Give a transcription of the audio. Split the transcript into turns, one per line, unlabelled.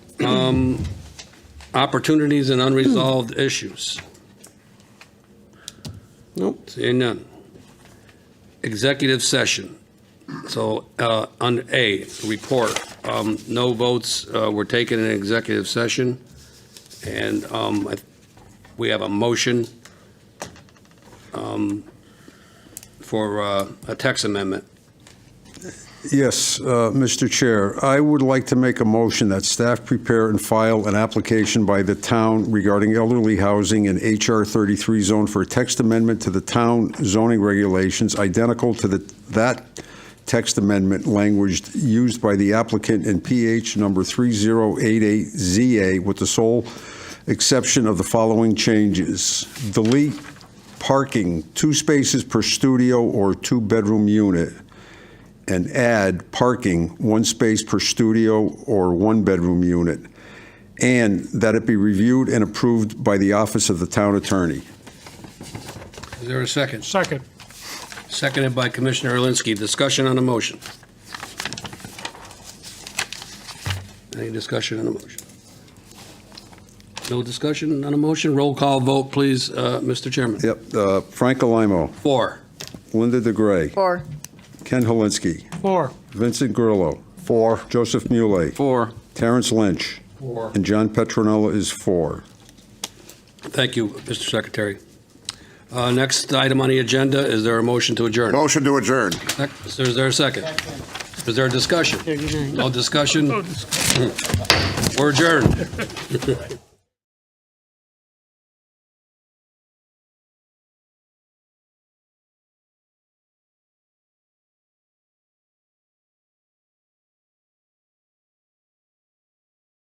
um, opportunities and unresolved issues.
Nope.
Seeing none. Executive session. So, uh, on A, report, um, no votes, uh, were taken in executive session. And, um, I- we have a motion, um, for, uh, a text amendment.
Yes, uh, Mr. Chair, I would like to make a motion that staff prepare and file an application by the town regarding elderly housing in HR 33 zone for a text amendment to the town zoning regulations identical to the, that text amendment language used by the applicant in PH number 3088ZA with the sole exception of the following changes. Delete parking, two spaces per studio or two-bedroom unit and add parking, one space per studio or one-bedroom unit, and that it be reviewed and approved by the office of the town attorney.
Is there a second?
Second.
Seconded by Commissioner Alinsky. Discussion on the motion. Any discussion on the motion? No discussion on the motion? Roll call vote, please, uh, Mr. Chairman.
Yep, uh, Frank Alamo,
Four.
Linda DeGray,
Four.
Ken Helinski,
Four.
Vincent Grillo. Four. Joseph Muley,
Four.
Terrence Lynch,
Four.
and John Petronella is four.
Thank you, Mr. Secretary. Uh, Next item on the agenda, is there a motion to adjourn?
Motion to adjourn.
Is there a second? Is there a discussion? No discussion? We're adjourned.